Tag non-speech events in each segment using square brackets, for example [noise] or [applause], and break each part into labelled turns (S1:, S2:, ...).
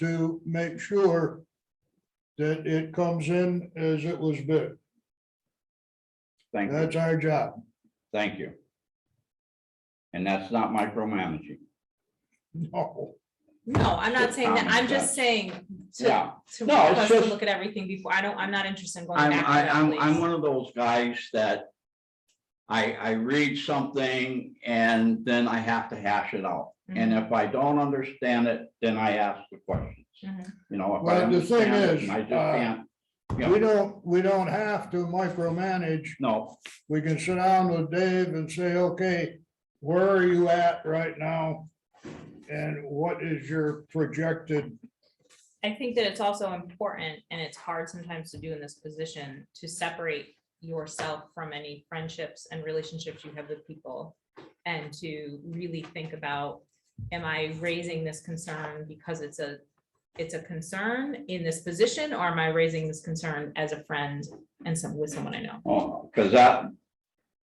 S1: to make sure that it comes in as it was bid.
S2: Thank you,
S1: That's our job.
S2: thank you. And that's not micromanaging.
S1: No.
S3: No, I'm not
S2: It's
S3: saying that.
S2: common
S3: I'm just
S2: sense.
S3: saying to,
S2: Yeah,
S3: to
S2: No, it's
S3: request to
S2: just-
S3: look at everything before. I don't, I'm not interested in going
S2: I'm,
S3: back.
S2: I,
S3: to
S2: I'm,
S3: that,
S2: I'm
S3: please.
S2: one of those guys that I, I read something and then I have to hash it out. And if I don't understand it, then I ask the questions.
S3: Mhm.
S2: You know, if I
S1: Well, the thing
S2: understand
S1: is,
S2: it, and I just
S1: uh,
S2: can't,
S1: We don't, we don't have to micromanage.
S2: no,
S1: We can sit down with Dave and say, okay, where are you at right now? And what is your projected,
S3: I think that it's also important, and it's hard sometimes to do in this position, to separate yourself from any friendships and relationships you have with people. And to really think about, am I raising this concern because it's a, it's a concern in this position? Or am I raising this concern as a friend and some, with someone I know?
S2: Oh, cause that,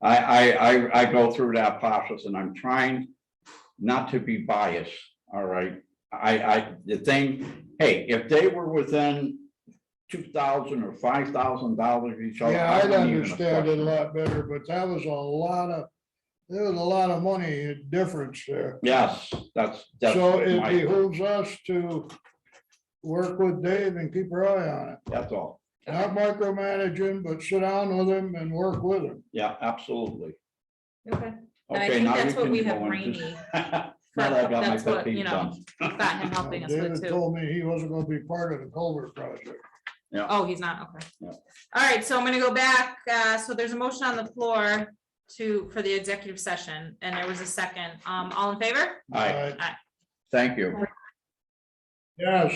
S2: I, I, I, I go through that process and I'm trying not to be biased, all right? I, I, the thing, hey, if they were within two thousand or five thousand dollars each other.
S1: yeah, I'd
S2: wouldn't even have
S1: understand it a
S2: questioned
S1: lot better, but that was a lot of, there was a lot of money difference there.
S2: Yes, that's, that's
S1: So it
S2: my,
S1: behooves us to work with Dave and keep our eye on it.
S2: that's all.
S1: Not micromanaging, but sit down with him and work with him.
S2: Yeah, absolutely.
S3: Okay. And I
S2: Okay,
S3: think
S2: now you
S3: that's what
S2: can
S3: we
S2: go
S3: have
S2: into-
S3: Rainey.
S2: [laughs] Now
S3: for-
S2: that I got my
S3: That's
S2: pet
S3: what,
S2: peeve
S3: you know,
S2: done.
S3: we've got him helping us with
S1: David
S3: too.
S1: told me he wasn't gonna be part of the culvert project.
S3: Oh, he's not, okay.
S2: Yeah.
S3: All right, so I'm gonna go back, uh, so there's a motion on the floor to, for the executive session, and there was a second, um, all in favor?
S2: Aye,
S1: Alright.
S2: thank
S3: [laughs]
S2: you.
S1: Yes,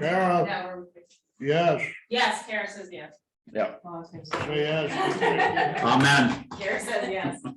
S1: Carol, yes,
S3: Yes, Kara says yes.
S2: Yeah.
S1: say yes.
S2: Amen.
S3: Kara says yes.